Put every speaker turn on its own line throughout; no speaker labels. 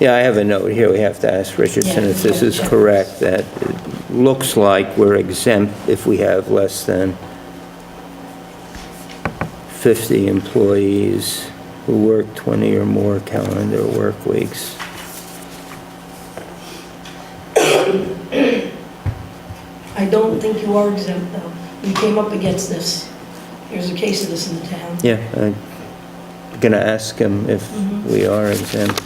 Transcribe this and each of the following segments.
Yeah, I have a note here, we have to ask Richardson
Yeah,
if this
yeah,
is
yeah.
correct, that it looks like we're exempt if we have less than 50 employees who work 20 or more calendar work weeks.
I don't think you are exempt, though. We came up against this. There's a case of this in the town.
Yeah, I'm going to ask him if
Mhm.
we are exempt.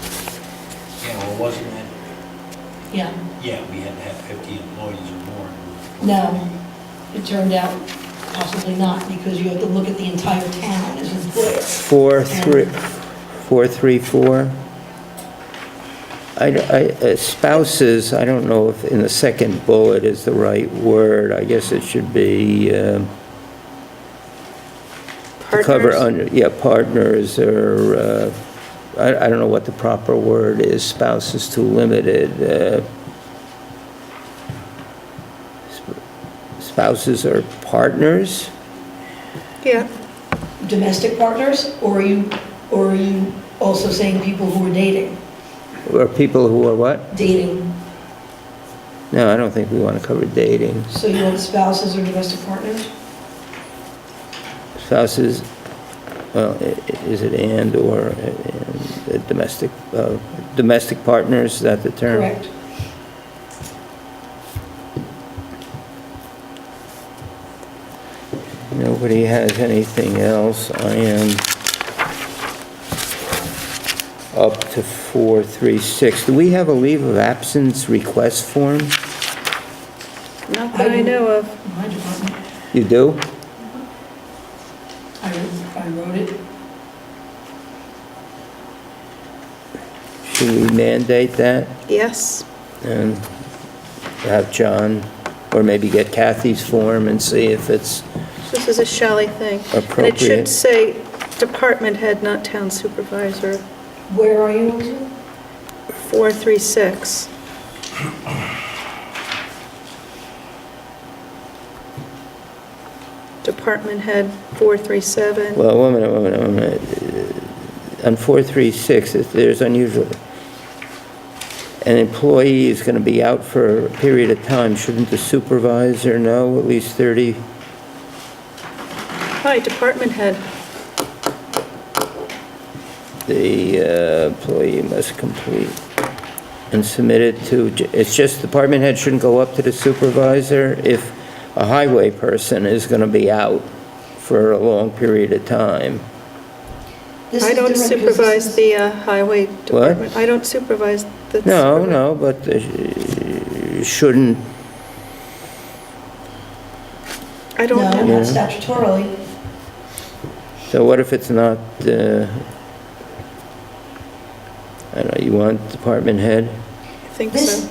Yeah, well, wasn't that,
Yeah,
yeah, we had to have 50 employees or more.
no, it turned out possibly not, because you have to look at the entire town as an employer.
Four, three, four, three, four. I, I- uh, spouses, I don't know if in the second bullet is the right word. I guess it should be, um, to cover
Partners?
under, yeah, partners or, uh, I, I don't know what the proper word is, spouse is too limited. uh, sp- Spouses or partners?
Yeah,
Domestic partners, or are you, or are you also saying people who are dating?
Or people who are what?
Dating,
No, I don't think we want to cover dating.
so you want spouses or domestic partners?
Spouses, well, i- i- is it and/or domestic, uh, domestic partners, is that the term?
Correct.
Nobody has anything else. I am up to 436. Do we have a leave of absence request form?
not that I know of.
My department,
You do?
I wrote- I wrote it.
Should we mandate that
Yes,
and have John, or maybe get Kathy's form and see if it's
this is a Shelley thing. And it
Appropriate.
should say department head, not town supervisor,
Where are you, Elizabeth?
436. Department head, 437.
Well, one minute, one minute, one minute. On 436, it- there's unusual. An employee is going to be out for a period of time. Shouldn't the supervisor know at least 30?
Hi, department head.
The uh, employee must complete and submit it to, it's just department head shouldn't go up to the supervisor if a highway person is going to be out for a long period of time.
This
I
is
don't
different because this
supervise
is-
the uh, highway department. I don't supervise the...
No,
supervi-
no, but uh, shouldn't
I don't
No,
know.
not
Yeah.
statutorily.
So what if it's not, uh, I don't know, you want department head?
I think
This,
so.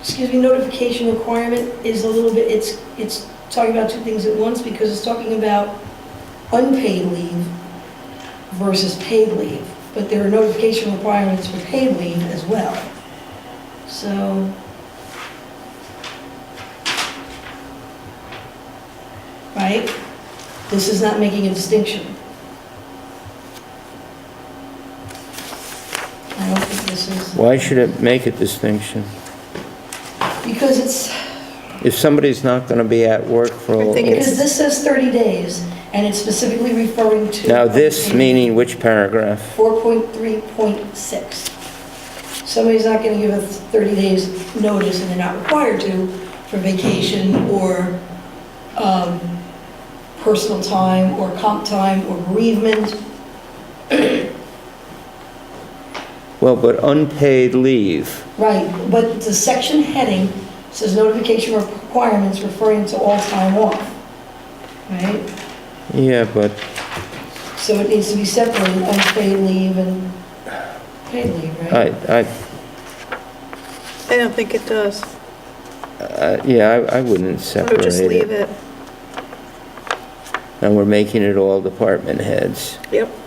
excuse me, notification requirement is a little bit, it's, it's talking about two things at once because it's talking about unpaid leave versus paid leave, but there are notification requirements for paid leave as well. So, right? This is not making a distinction. I don't think this is.
Why should it make a distinction?
Because it's,
If somebody's not going to be at work for
I think
a...
because this says 30 days, and it's specifically referring to...
Now, this meaning which paragraph?
4.3.6. Somebody's not going to give us 30 days notice, and they're not required to, for vacation or um, personal time or comp time or bereavement.
Well, but unpaid leave.
Right, but the section heading says notification requirements referring to all time off, right?
Yeah, but,
So it needs to be separated, unpaid leave and paid leave, right?
I, I,
I don't think it does.
I- uh, yeah, I I wouldn't
I would
separate
just leave
it.
it.
And we're making it all department heads.
Yep.